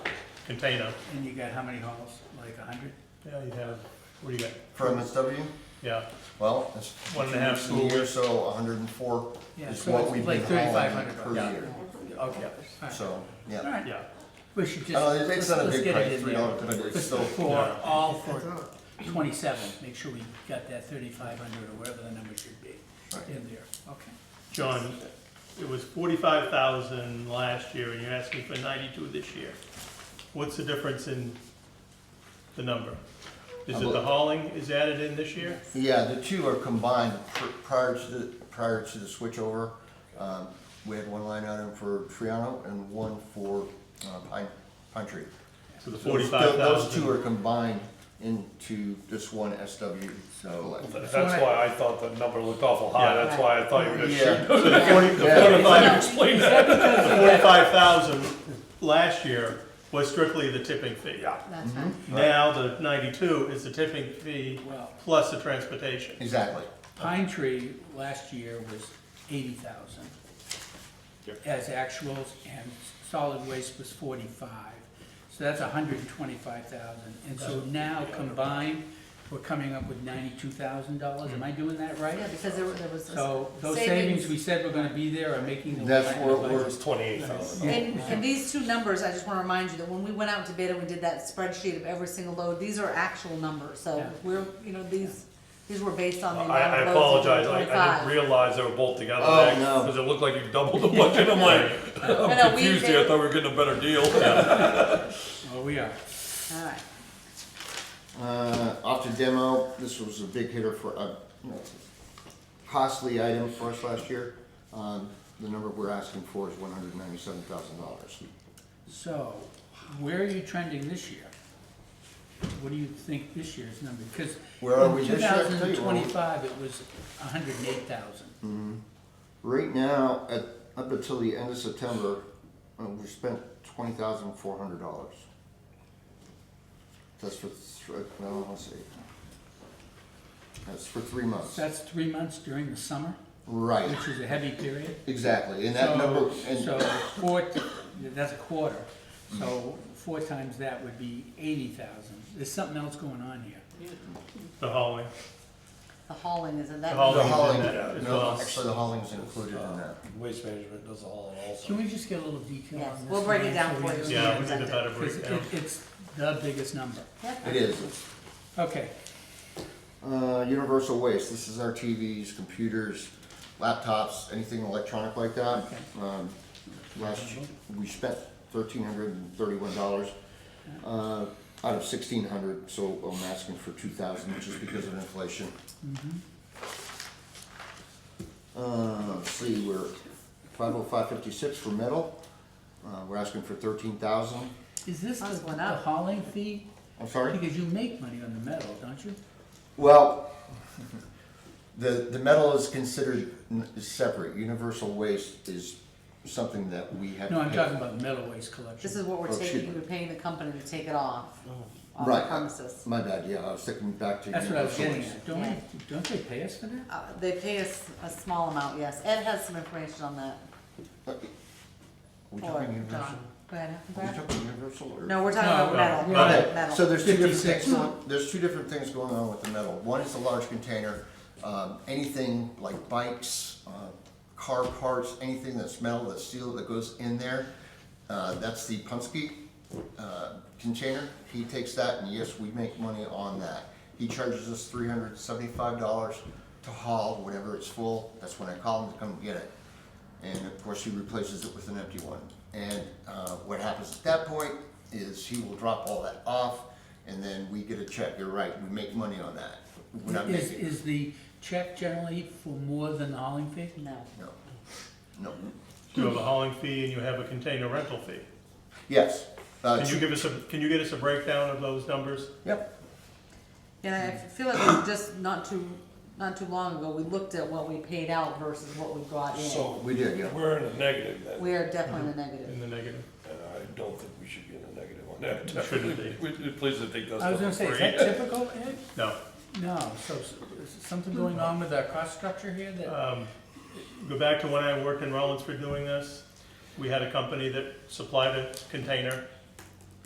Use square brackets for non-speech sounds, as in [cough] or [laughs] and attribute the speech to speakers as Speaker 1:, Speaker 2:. Speaker 1: container.
Speaker 2: And you got how many halls? Like a hundred?
Speaker 1: Yeah, you have, what do you got?
Speaker 3: For MSW,
Speaker 1: yeah,
Speaker 3: well, it's.
Speaker 1: One and a half
Speaker 3: two weeks a year, So hundred and four
Speaker 2: Yeah,
Speaker 3: is
Speaker 2: so
Speaker 3: what
Speaker 2: it's
Speaker 3: we've
Speaker 2: like
Speaker 3: been hauling
Speaker 2: 3,500
Speaker 3: per
Speaker 2: bucks.
Speaker 3: year,
Speaker 2: Okay.
Speaker 3: so,
Speaker 2: All
Speaker 3: yeah.
Speaker 2: right,
Speaker 1: yeah.
Speaker 2: we should just,
Speaker 3: Uh, it's
Speaker 2: let's
Speaker 3: not a
Speaker 2: let's
Speaker 3: big
Speaker 2: get
Speaker 3: price,
Speaker 2: it in
Speaker 3: three
Speaker 2: there.
Speaker 3: dollars, but it's still,
Speaker 2: For all for twenty-seven, make sure we got that thirty-five hundred or whatever the number should be
Speaker 3: Right.
Speaker 2: in there, okay.
Speaker 1: John, it was forty-five thousand last year, and you're asking for ninety-two this year. What's the difference in the number? Is it the hauling is added in this year?
Speaker 3: yeah, the two are combined Pr- prior to, the prior to the switchover. Um, we had one line item for Triano and one for, uh, Pine, Pine Tree.
Speaker 1: So the
Speaker 3: So those-
Speaker 1: forty-five
Speaker 3: Those two
Speaker 1: thousand?
Speaker 3: are combined into this one SW, so.
Speaker 4: That's why I thought the number looked awful high,
Speaker 1: Yeah.
Speaker 4: that's why I thought you were gonna
Speaker 3: Yeah.
Speaker 1: [laughs]
Speaker 4: shoot. Forty-five, explain that.
Speaker 1: The forty-five thousand last year was strictly the tipping fee.
Speaker 4: Yeah,
Speaker 5: That's right.
Speaker 2: Mm-hmm.
Speaker 1: Now, the ninety-two is the tipping fee
Speaker 2: Well,
Speaker 1: plus the transportation.
Speaker 3: Exactly.
Speaker 2: Pine Tree last year was eighty thousand
Speaker 4: Yep.
Speaker 2: as actuals, and solid waste was forty-five. So that's hundred and twenty-five thousand, and so now combined, we're coming up with ninety-two thousand dollars, am I
Speaker 3: Hmm.
Speaker 2: doing that right?
Speaker 5: Yeah, because there were- there was. this
Speaker 2: So those savings we said were gonna be there are making the.
Speaker 3: That's
Speaker 2: line
Speaker 3: where
Speaker 2: of
Speaker 3: we're-
Speaker 4: it
Speaker 2: budget.
Speaker 4: was twenty-eight thousand.
Speaker 5: And, and these two numbers, I just wanna remind you that when we went out to bid and we did that spreadsheet of every single load, these are actual numbers, so
Speaker 2: Yeah.
Speaker 5: we're, you know, these, these were based on the
Speaker 4: I,
Speaker 5: amount
Speaker 4: I
Speaker 5: of loads.
Speaker 4: apologize, I, I didn't realize they were both together, because it looked like you doubled the budget, I'm like,
Speaker 5: no,
Speaker 4: I'm
Speaker 5: we
Speaker 4: confused here, I
Speaker 5: did-
Speaker 4: thought we were getting a better deal.
Speaker 2: Well, we are.
Speaker 5: Alright,
Speaker 3: Uh, off to demo, this was a big hitter for, uh, you know, costly item for us last year. Um, the number we're asking for is one hundred ninety-seven thousand dollars.
Speaker 2: So, where are you trending this year? What do you think this year's number, because
Speaker 3: Where are
Speaker 2: in
Speaker 3: we
Speaker 2: two
Speaker 3: this year? I can
Speaker 2: thousand
Speaker 3: tell
Speaker 2: and
Speaker 3: you where we-
Speaker 2: twenty-five, it was hundred and eight thousand.
Speaker 3: Right now, at, up until the end of September, uh, we spent twenty thousand four hundred dollars. That's for, th- no, let's see. That's for three months.
Speaker 2: That's three months during the summer,
Speaker 3: Right,
Speaker 2: which is a heavy period.
Speaker 3: exactly, and that
Speaker 2: So-
Speaker 3: number, and
Speaker 2: So, four, that's a quarter, so four times that would be eighty thousand. There's something else going on here.
Speaker 1: The hauling,
Speaker 5: the hauling is in
Speaker 1: the
Speaker 5: that.
Speaker 3: The
Speaker 1: hauling's
Speaker 3: hauling,
Speaker 1: in that as
Speaker 3: no,
Speaker 1: well.
Speaker 3: actually, the hauling's included in that.
Speaker 4: Waste management does all in
Speaker 2: Can we just get a little detail
Speaker 5: Yes,
Speaker 2: on this?
Speaker 5: we'll break it down
Speaker 2: so we
Speaker 5: for you.
Speaker 2: understand?
Speaker 1: Yeah, we need a better
Speaker 2: Because
Speaker 1: breakdown.
Speaker 2: it, it's the biggest number.
Speaker 5: Yep.
Speaker 3: It is, it's,
Speaker 2: Okay,
Speaker 3: uh, universal waste, this is our TVs, computers, laptops, anything electronic like that.
Speaker 2: Okay.
Speaker 3: Um, last, year, we spent thirteen hundred and thirty-one dollars, uh, out of sixteen hundred, so I'm asking for two thousand, just because of inflation. Uh, let's see, we're five oh five fifty-six for metal, uh, we're asking for thirteen thousand,
Speaker 2: is this the
Speaker 5: Mine's going
Speaker 2: the
Speaker 5: up.
Speaker 2: hauling fee?
Speaker 3: I'm sorry?
Speaker 2: Because you make money on the metal, don't you?
Speaker 3: Well, the, the metal is considered n- is separate. Universal waste is something that we have.
Speaker 2: No,
Speaker 3: to
Speaker 2: I'm
Speaker 3: pay.
Speaker 2: talking about the metal waste
Speaker 5: This
Speaker 2: collection.
Speaker 5: is what we're
Speaker 3: Oh,
Speaker 5: taking,
Speaker 3: cheaper.
Speaker 5: we're paying the company to take it off,
Speaker 2: Mm.
Speaker 5: off the
Speaker 3: Right.
Speaker 5: premises.
Speaker 3: My bad, yeah, I was thinking back to.
Speaker 2: That's what I was
Speaker 3: universal
Speaker 2: getting
Speaker 3: waste.
Speaker 2: at. Don't, we- don't they pay us for that?
Speaker 5: Uh, they pay us a small amount, yes, Ed has some information on that,
Speaker 3: Are we
Speaker 5: or
Speaker 3: talking universal?
Speaker 5: John, go ahead,
Speaker 3: Are we
Speaker 5: Brad.
Speaker 3: talking universal or?
Speaker 5: No, we're talking
Speaker 2: No,
Speaker 5: about metal,
Speaker 2: no,
Speaker 5: metal,
Speaker 3: Okay,
Speaker 5: metal.
Speaker 3: so there's two different
Speaker 2: 56.
Speaker 3: things, going- there's two different things going on with the metal. One is the large container, um, anything like bikes, uh, car parts, anything that's metal, that's steel, that goes in there. Uh, that's the Punske, uh, container. He takes that and yes, we make money on that. He charges us three hundred seventy-five dollars to haul whenever it's full. That's when I call him to come get it. And of course, he replaces it with an empty one. And uh, what happens at that point is he will drop all that off, and then we get a check. You're right, we make money on that. We're not
Speaker 2: Is,
Speaker 3: making,
Speaker 2: is the check generally for more than the hauling fee?
Speaker 5: No.
Speaker 3: no, no.
Speaker 1: You have a hauling fee and you have a container rental fee.
Speaker 3: Yes. Uh,
Speaker 1: Can you
Speaker 3: two-
Speaker 1: give us a, can you get us a breakdown of those numbers?
Speaker 3: Yep,
Speaker 5: And I feel like we just not too, not too long ago, we looked at what we paid out versus what we brought in.
Speaker 4: So,
Speaker 3: we did, yeah.
Speaker 4: we're in the negative then,
Speaker 5: We are definitely in the
Speaker 1: In
Speaker 5: negative.
Speaker 1: the negative.
Speaker 4: and I don't think we should be in the negative on that.
Speaker 1: It shouldn't be.
Speaker 4: We- Please don't think that's.
Speaker 2: I was gonna say, is that typical, Ed?
Speaker 1: No.
Speaker 2: No, so s- is something going on with our cost structure here that,
Speaker 1: Um, Go back to when I worked in Rollinsford doing this. We had a company that supplied a container